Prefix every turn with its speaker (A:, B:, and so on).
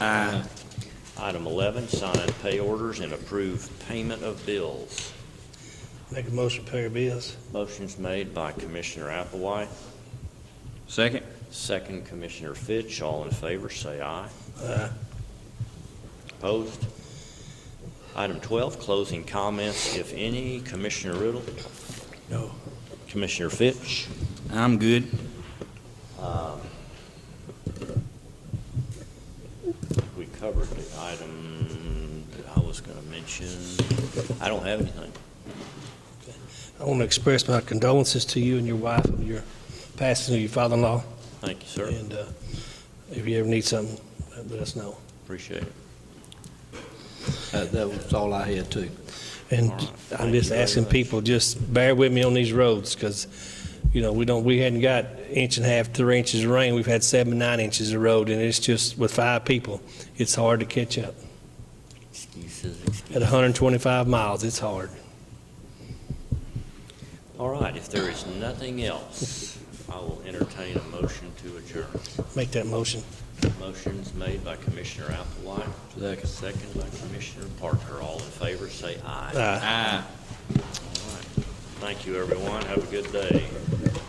A: Aye.
B: Item 11, sign pay orders and approve payment of bills.
C: Make a motion to pay our bills.
B: Motion's made by Commissioner Applewhite,
A: Second?
B: second Commissioner Fitch. All in favor, say aye.
C: Aye.
B: Opposed? Item 12, closing comments, if any. Commissioner Riddle?
C: No.
B: Commissioner Fitch? Um,
A: I'm good.
B: We covered the item that I was going to mention. I don't have anything.
C: I want to express my condolences to you and your wife of your passing of your father-in-law.
B: Thank you, sir.
C: And uh, if you ever need something, let us know.
B: Appreciate it.
D: That Uh, that was all I had too.
C: And
B: All right.
C: I'm
B: Thank you
C: just
B: very
C: asking
B: much.
C: people, just bear with me on these roads, because, you know, we don't, we hadn't got inch and a half, three inches of rain. We've had seven, nine inches of road, and it's just, with five people, it's hard to catch up.
B: Excuses,
C: At
B: excuses.
C: 125 miles, it's hard.
B: All right, if there is nothing else, I will entertain a motion to adjourn.
C: Make that motion.
B: Motion's made by Commissioner Applewhite.
D: Second.
B: Second by Commissioner Parker. All in favor, say aye.
C: Aye.
A: Aye.
B: All right. Thank you, everyone. Have a good day.